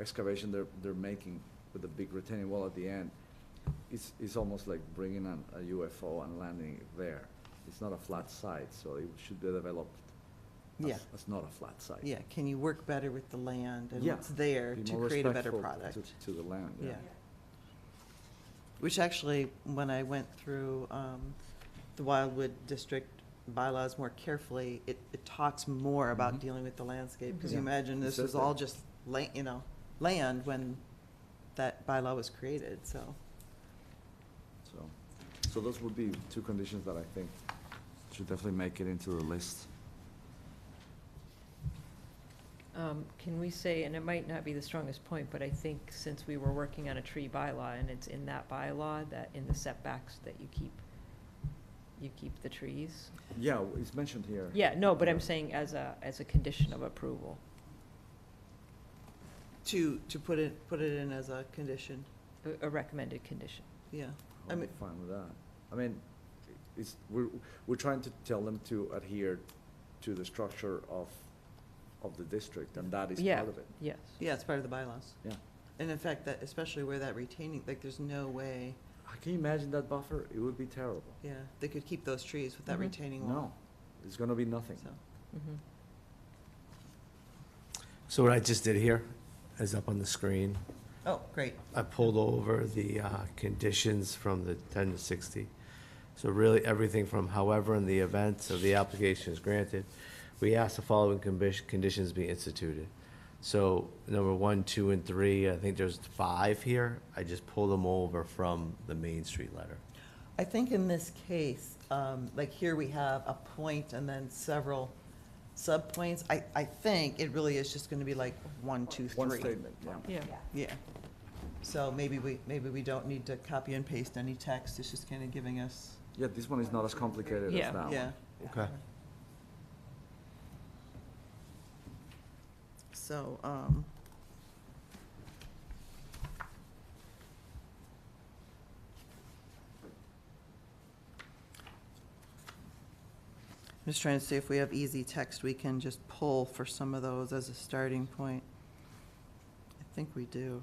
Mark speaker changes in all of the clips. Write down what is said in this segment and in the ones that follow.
Speaker 1: excavation they're, they're making with the big retaining wall at the end, it's, it's almost like bringing an, a UFO and landing it there. It's not a flat site, so it should be developed
Speaker 2: Yeah.
Speaker 1: as, as not a flat site.
Speaker 2: Yeah, can you work better with the land and
Speaker 1: Yeah,
Speaker 2: what's there
Speaker 1: Be
Speaker 2: to
Speaker 1: more
Speaker 2: create a better
Speaker 1: respectful
Speaker 2: product?
Speaker 1: To, to the land, yeah.
Speaker 2: Yeah. Which actually, when I went through um, the Wildwood District bylaws more carefully, it, it talks more about
Speaker 1: Mhm.
Speaker 2: dealing with the landscape. Because
Speaker 1: Mhm.
Speaker 2: you
Speaker 1: Yeah,
Speaker 2: imagine
Speaker 1: it
Speaker 2: this
Speaker 1: says
Speaker 2: was all
Speaker 1: that.
Speaker 2: just la, you know, land when that bylaw was created, so.
Speaker 1: So, so those would be two conditions that I think should definitely make it into the list.
Speaker 3: Um, Can we say, and it might not be the strongest point, but I think since we were working on a tree bylaw, and it's in that bylaw, that in the setbacks, that you keep, you keep the trees?
Speaker 1: Yeah, w- it's mentioned here.
Speaker 3: Yeah, no, but I'm
Speaker 1: Yeah.
Speaker 3: saying as a, as a condition of approval.
Speaker 2: To, to put it, put it in as a condition,
Speaker 3: A- A recommended condition.
Speaker 2: yeah. I
Speaker 1: I'm
Speaker 2: mean-
Speaker 1: fine with that. I mean, it's, we're, we're trying to tell them to adhere to the structure of, of the district, and that is
Speaker 3: Yeah.
Speaker 1: part of it.
Speaker 3: Yes.
Speaker 2: Yeah, it's part of the bylaws.
Speaker 1: Yeah.
Speaker 2: And in fact, that, especially where that retaining, like, there's no way,
Speaker 1: Ah, Can you imagine that buffer? It would be terrible.
Speaker 2: yeah, they could keep those trees with that
Speaker 3: Mhm.
Speaker 2: retaining
Speaker 1: Mm-hmm. No,
Speaker 2: wall.
Speaker 1: it's gonna be nothing.
Speaker 2: So,
Speaker 3: Mhm.
Speaker 4: So what I just did here is up on the screen.
Speaker 2: oh, great.
Speaker 4: I pulled over the uh, conditions from the 10 to 60. So really, everything from however in the event of the application is granted, we ask the following condi- conditions be instituted. So number one, two, and three, I think there's five here. I just pulled them over from the Main Street letter.
Speaker 2: I think in this case, um, like here we have a point and then several subpoints. I, I think it really is just gonna be like one, two,
Speaker 1: One
Speaker 2: three.
Speaker 1: statement, yeah.
Speaker 3: Yeah.
Speaker 2: Yeah. So maybe we, maybe we don't need to copy and paste any text, it's just kinda giving us,
Speaker 1: Yeah, this one is not as complicated
Speaker 3: Yeah.
Speaker 1: as that
Speaker 2: yeah.
Speaker 1: one.
Speaker 4: Okay.
Speaker 2: So, um, I'm just trying to see if we have easy text we can just pull for some of those as a starting point. I think we do.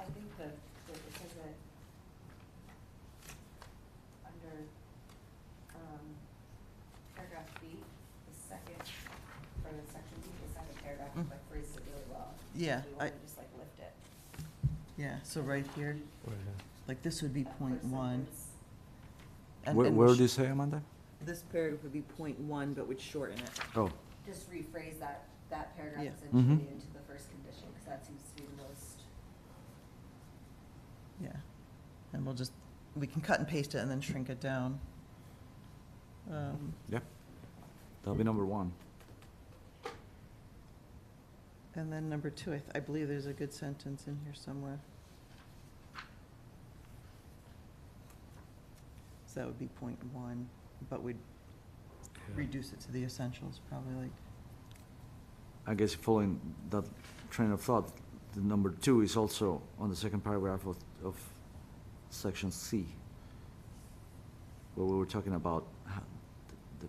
Speaker 5: I think the, the, it says that under, um, paragraph B, the second, for the section B, the second paragraph,
Speaker 2: Mm.
Speaker 5: like phrases it really well.
Speaker 2: Yeah,
Speaker 5: You
Speaker 2: I-
Speaker 5: wanna just like lift it.
Speaker 2: Yeah, so right here, like this would be
Speaker 5: That
Speaker 2: point
Speaker 5: first
Speaker 2: one.
Speaker 5: sentence.
Speaker 2: and-
Speaker 1: Where,
Speaker 2: and
Speaker 1: where
Speaker 2: sh-
Speaker 1: do you say, Amanda?
Speaker 2: This paragraph would be point one, but would shorten it.
Speaker 1: Oh,
Speaker 5: Just rephrase that, that paragraph
Speaker 2: Yeah. Mm-hmm.
Speaker 1: Mhm.
Speaker 5: essentially into the first condition, cause that seems to be the most,
Speaker 2: Yeah, and we'll just, we can cut and paste it and then shrink it down. Um,
Speaker 1: yep. That'll be number one.
Speaker 2: And then number two, I, th- I believe there's a good sentence in here somewhere. So that would be point one, but we'd reduce it to the essentials, probably like,
Speaker 1: I guess following that train of thought, the number two is also on the second paragraph of, of section C, where we were talking about ho- the,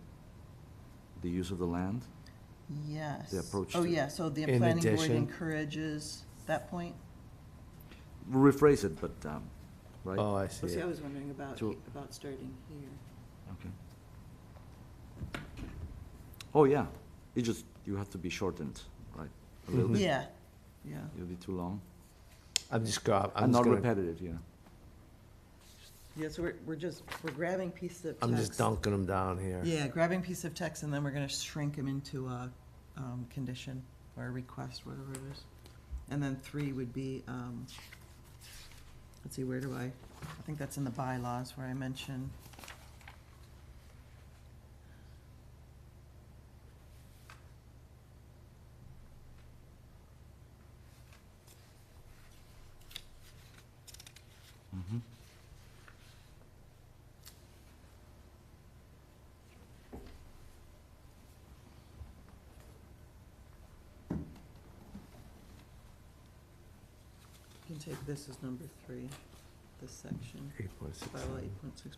Speaker 1: the use of the land.
Speaker 2: yes.
Speaker 1: approach
Speaker 2: Oh,
Speaker 1: to-
Speaker 2: yeah, so the
Speaker 4: In
Speaker 2: planning board
Speaker 4: addition-
Speaker 2: encourages that point?
Speaker 1: We'll rephrase it, but, um, right?
Speaker 4: Oh, I see. it.
Speaker 2: was wondering about,
Speaker 1: To-
Speaker 2: about starting here.
Speaker 1: Okay. Oh, yeah, it just, you have to be shortened, right? A
Speaker 4: Mm-hmm.
Speaker 1: little bit.
Speaker 2: Yeah, yeah,
Speaker 4: Hmm.
Speaker 1: It'll be too long.
Speaker 4: I'm just, go- I'm
Speaker 1: And
Speaker 4: just
Speaker 1: not
Speaker 4: gonna,
Speaker 1: repetitive, yeah.
Speaker 2: yeah, so we're, we're just, we're grabbing pieces of text.
Speaker 4: I'm just dunking them down here.
Speaker 2: Yeah, grabbing piece of text and then we're gonna shrink them into a, um, condition or a request, whatever it is. And then three would be, um, let's see, where do I, I think that's in the bylaws where I mention.
Speaker 1: Mhm.
Speaker 2: You can take this as number three, this section,
Speaker 4: Eight point six
Speaker 2: bylaw
Speaker 4: nine.
Speaker 2: eight point six